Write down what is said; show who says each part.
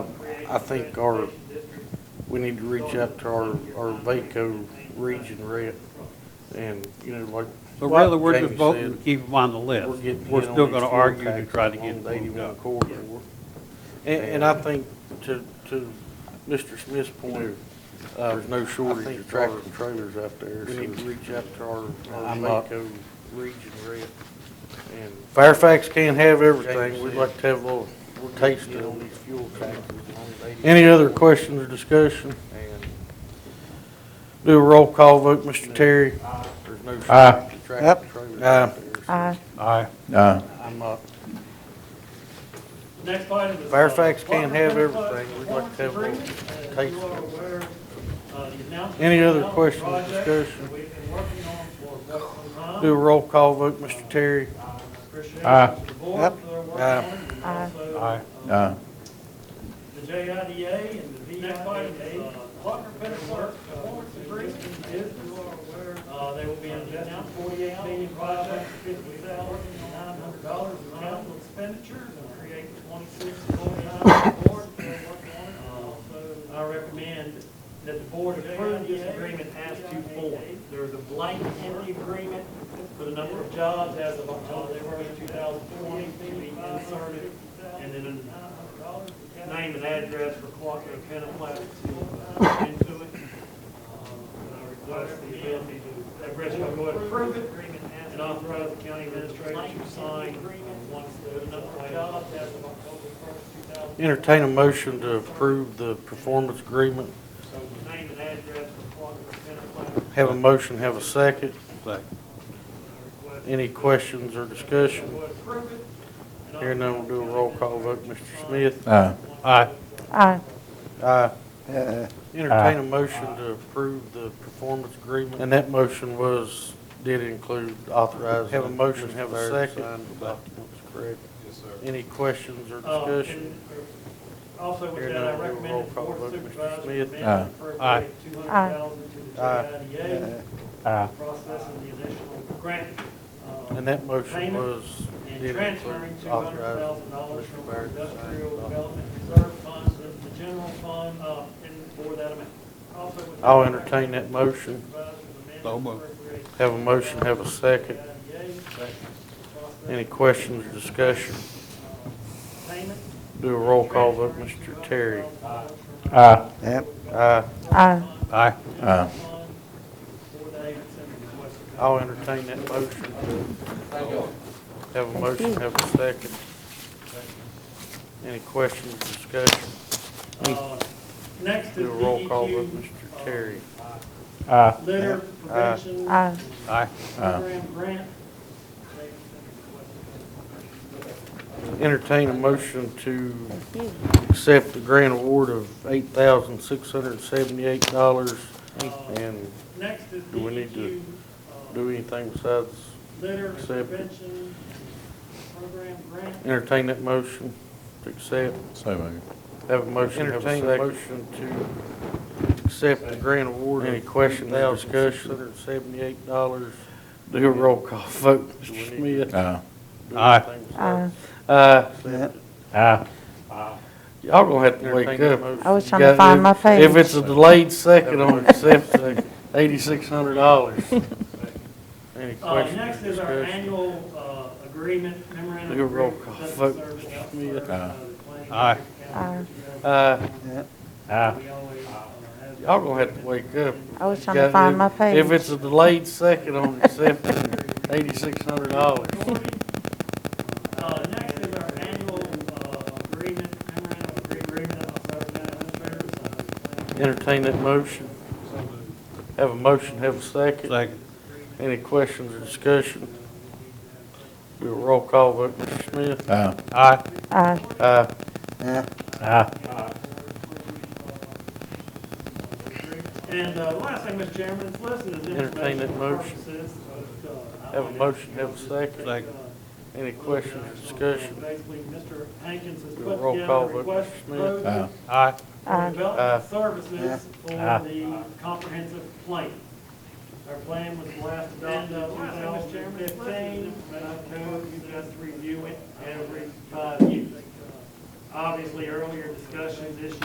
Speaker 1: I think our, we need to reach out to our, our VACO region rep and, you know, like.
Speaker 2: So rather, we're just
Speaker 1: Jamie
Speaker 2: voting to
Speaker 1: said,
Speaker 2: keep them on the
Speaker 1: we're
Speaker 2: list.
Speaker 1: getting
Speaker 2: We're
Speaker 1: hit on
Speaker 2: still
Speaker 1: these
Speaker 2: gonna
Speaker 1: fuel
Speaker 2: argue to
Speaker 1: taxes
Speaker 2: try to
Speaker 1: along
Speaker 2: get
Speaker 1: the
Speaker 2: it moved
Speaker 1: 81
Speaker 2: up.
Speaker 1: corridor. And, and I think to, to Mr. Smith's point, uh, there's no shortage of tractor trailers out there. We need to reach out to our, our
Speaker 3: I'm not-
Speaker 1: VACO region rep and.
Speaker 3: Fairfax can't have everything, we'd like to have a little
Speaker 1: We're getting
Speaker 3: taste
Speaker 1: hit on
Speaker 3: of it.
Speaker 1: these fuel taxes along the 81
Speaker 3: Any other
Speaker 1: corridor.
Speaker 3: questions or discussion?
Speaker 1: And
Speaker 3: Do a roll call vote, Mr. Terry.
Speaker 1: There's no
Speaker 4: Aye.
Speaker 1: shortage of tractor trailers out there. so
Speaker 5: Aye.
Speaker 4: Aye.
Speaker 1: I'm
Speaker 3: uh,
Speaker 1: not
Speaker 6: Next item is. uh,
Speaker 3: Fairfax can't have
Speaker 6: Waterfront Club
Speaker 3: everything. We'd like to have a little
Speaker 6: Agreement. As
Speaker 3: taste
Speaker 6: you are
Speaker 3: of
Speaker 6: aware, uh, the announcement
Speaker 3: Any other
Speaker 6: of the
Speaker 3: questions,
Speaker 6: project
Speaker 3: discussion?
Speaker 6: that We've been working on for quite some time.
Speaker 3: Do a roll call vote, Mr. Terry.
Speaker 6: I appreciate
Speaker 4: Aye.
Speaker 6: the board
Speaker 3: Yep.
Speaker 6: for their work
Speaker 3: Aye.
Speaker 6: on it, and
Speaker 5: Aye.
Speaker 6: also,
Speaker 4: Aye.
Speaker 6: uh, The JIDA and the VIDA. Next item is, uh, Butler Pettitburg Performance Agreement. If you are aware, uh, they will be investing forty-eight million project, fifty thousand nine hundred dollars in capital expenditures and create twenty-six full-time board. Uh, I recommend that the board approve this agreement as to form. There is a blank in the agreement for the number of jobs as of October first, two thousand twenty, to be inserted, and then a name and address for Quaco Penaplat to into it. Uh, I request the ability to, that rest will go ahead and approve it, and authorize the county administrator to sign once the number of jobs as of October first, two thousand.
Speaker 3: Entertain a motion to approve the performance agreement.
Speaker 6: So name and address for Quaco Penaplat.
Speaker 3: Have a motion, have a second.
Speaker 2: Second.
Speaker 3: Any questions or discussion? Here now we'll do a roll call vote, Mr. Smith.
Speaker 4: Aye.
Speaker 2: Aye.
Speaker 5: Aye.
Speaker 3: Aye. Uh-uh. Entertain a motion to approve the performance agreement. And that motion was, did include authorizing. Have a motion, have a second. Correct. Any questions or
Speaker 6: Uh,
Speaker 3: discussion?
Speaker 6: and Also with
Speaker 3: Here
Speaker 6: that, I
Speaker 3: now, we'll
Speaker 6: recommend
Speaker 3: roll
Speaker 6: that the
Speaker 3: call
Speaker 6: board
Speaker 3: vote, Mr.
Speaker 6: supervisor
Speaker 3: Smith.
Speaker 4: Aye.
Speaker 6: amend for
Speaker 2: Aye.
Speaker 6: two hundred thousand to the
Speaker 3: Aye.
Speaker 6: JIDA
Speaker 4: Aye.
Speaker 6: process and the additional grant. uh,
Speaker 3: And that motion
Speaker 6: payment
Speaker 3: was,
Speaker 6: And
Speaker 3: did
Speaker 6: transferring
Speaker 3: include
Speaker 6: two hundred thousand
Speaker 3: authorizing.
Speaker 6: dollars
Speaker 3: Mr.
Speaker 6: from our
Speaker 3: Barrett to sign.
Speaker 6: industrial development reserve funds to the general fund, uh, and for that amount. Also with that,
Speaker 3: I'll
Speaker 6: I
Speaker 3: entertain that motion.
Speaker 6: recommend the
Speaker 2: So
Speaker 6: supervisor amend
Speaker 2: moved.
Speaker 6: to appropriate
Speaker 3: Have a motion, have a second. Any questions or discussion?
Speaker 6: uh,
Speaker 3: Do a roll call vote, Mr. Terry.
Speaker 4: Aye.
Speaker 3: Aye.
Speaker 5: Aye.
Speaker 2: Aye.
Speaker 4: Aye.
Speaker 3: I'll entertain that motion. Have a motion, have a second. Any questions, discussion?
Speaker 6: Uh, Next is E
Speaker 3: Do a roll call vote,
Speaker 6: DEQ,
Speaker 3: Mr. Terry.
Speaker 4: Aye.
Speaker 6: litter
Speaker 3: Aye.
Speaker 6: prevention
Speaker 5: Aye.
Speaker 2: Aye.
Speaker 6: program grant.
Speaker 3: Entertain a motion to
Speaker 5: Thank you.
Speaker 3: accept the grant award of eight thousand six hundred seventy-eight dollars. And
Speaker 6: Next is
Speaker 3: Do we need to
Speaker 6: DEQ, uh,
Speaker 3: do anything besides
Speaker 6: litter
Speaker 3: accept it?
Speaker 6: prevention program grant.
Speaker 3: entertain that motion to accept?
Speaker 4: So moved.
Speaker 3: Have a motion, have a second. motion to accept the grant award. Any questions, or discussion? Six hundred and seventy-eight dollars. Do a roll call vote, Mr. Smith.
Speaker 4: Aye.
Speaker 2: Aye.
Speaker 5: Aye.
Speaker 3: Uh,
Speaker 4: Aye.
Speaker 3: y'all gonna have to wake up.
Speaker 5: I was trying to find my page.
Speaker 3: If it's a delayed second on accept, the eighty-six hundred dollars. Any
Speaker 6: Uh,
Speaker 3: questions?
Speaker 6: Next is our
Speaker 3: discussion?
Speaker 6: annual uh, agreement memorandum.
Speaker 3: Do a roll
Speaker 6: agreement
Speaker 3: call
Speaker 6: for
Speaker 3: vote,
Speaker 6: service
Speaker 3: Mr.
Speaker 6: outside
Speaker 3: Smith.
Speaker 6: of the uh, planning
Speaker 2: Aye.
Speaker 6: district
Speaker 5: Aye.
Speaker 6: county.
Speaker 3: Uh,
Speaker 4: Aye.
Speaker 6: We always, uh,
Speaker 3: y'all gonna have to wake up.
Speaker 5: I was trying to find my page.
Speaker 3: If it's a delayed second on accept, eighty-six hundred dollars.
Speaker 6: Uh, Next is our annual uh, agreement memorandum of agreement outside of the administrator.
Speaker 3: Entertain that motion. Have a motion, have a second.
Speaker 2: Second.
Speaker 3: Any questions or discussion? Do a roll call vote, Mr. Smith.
Speaker 4: Aye.
Speaker 2: Aye.
Speaker 5: Aye.
Speaker 3: Aye.
Speaker 4: Aye.
Speaker 6: And uh, last thing, Mr. Chairman, it's listed as
Speaker 3: Entertain that
Speaker 6: information
Speaker 3: motion.
Speaker 6: purposes. but, uh, I
Speaker 3: Have a
Speaker 6: would-
Speaker 3: motion, have a second.
Speaker 2: Second.
Speaker 3: Any questions or discussion?
Speaker 6: uh, Basically, Mr. Hankins has
Speaker 3: Do a
Speaker 6: put
Speaker 3: roll
Speaker 6: together
Speaker 3: call
Speaker 6: a
Speaker 3: vote,
Speaker 6: request
Speaker 3: Mr. Smith.
Speaker 6: proposal
Speaker 4: Aye.
Speaker 2: Aye.
Speaker 6: for
Speaker 5: Aye.
Speaker 6: development services for
Speaker 4: Aye.
Speaker 6: the comprehensive plan. Our plan was last adopted in 2015, but I know you guys review it every five years. Obviously, earlier discussions, issues